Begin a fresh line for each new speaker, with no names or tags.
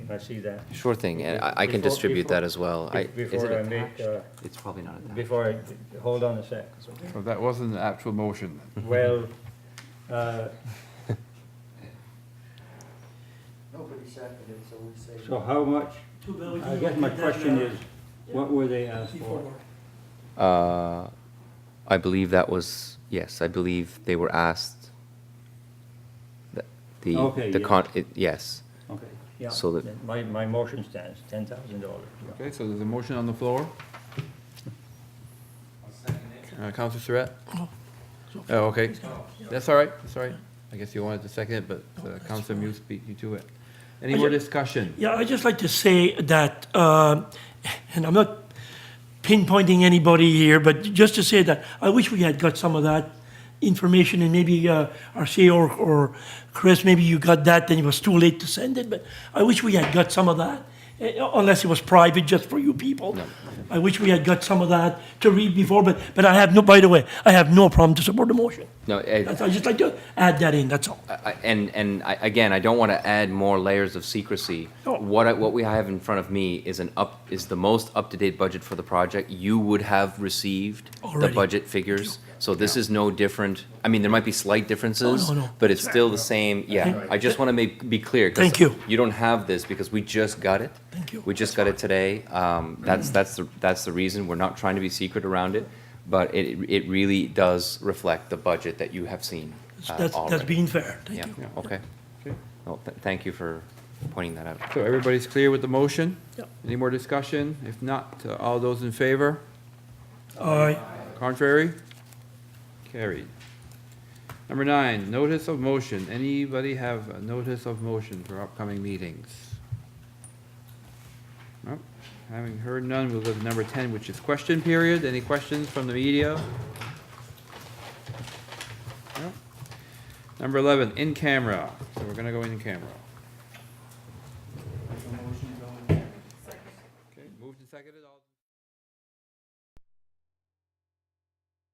I see that.
Sure thing, and I I can
Before-
distribute that
before-
as well. I-
be-
is
Before I
it
make, uh,
It's probably not attached.
before I, hold on a sec.
So that wasn't an actual motion.
Well, uh,
Nobody seconded, so we say.
so how much,
Two buildings.
I guess my question is, what were they asked for?
Uh, I believe that was, yes, I believe they were asked the,
Okay,
the, the
yeah.
con, it- yes.
Okay, yeah.
So that-
then My, my motion stands, ten thousand dollars.
Okay, so there's a motion on the floor. Uh, Counselor Surratt? Oh, okay. That's all right, that's all right. I guess you wanted to second it, but uh, Counselor Muse beat you to it. Any more discussion?
Yeah, I'd just like to say that, um, and I'm not pinpointing anybody here, but just to say that I wish we had got some of that information and maybe uh, our CEO or- or Chris, maybe you got that, then it was too late to send it, but I wish we had got some of that, eh, unless it was private just for you people. I wish we had got some of that to read before, but, but I have no, by the way, I have no problem to support the motion.
No, I,
That's- I'd just like to add that in, that's all.
I- and, and I, again, I don't want to add more layers of secrecy.
No.
What I, what we have in front of me is an up, is the most up-to-date budget for the project. You would have received the
Already.
budget figures, so this is no different. I mean, there might be slight differences,
Oh, no.
but it's still the same, yeah. I just want to make, be clear. 'cause
Thank you.
You don't have this because we just got it.
Thank you.
We just got it today. Um, that's, that's, the that's the reason. We're not trying to be secret around it, but it, it really does reflect the budget that you have seen uh,
That's, that's
already.
being fair, thank
Yeah,
you.
okay. Well, th- thank you for pointing that out.
So everybody's clear with the motion?
Yep.
Any more discussion? If not, uh, all those in favor?
All right.
Contrary? Carried. Number nine, notice of motion. Anybody have a notice of motion for upcoming meetings? Nope. Having heard none, we'll go to number ten, which is question period. Any questions from the media? Nope. Number eleven, in camera. So we're gonna go in camera. Okay, moved and seconded. All-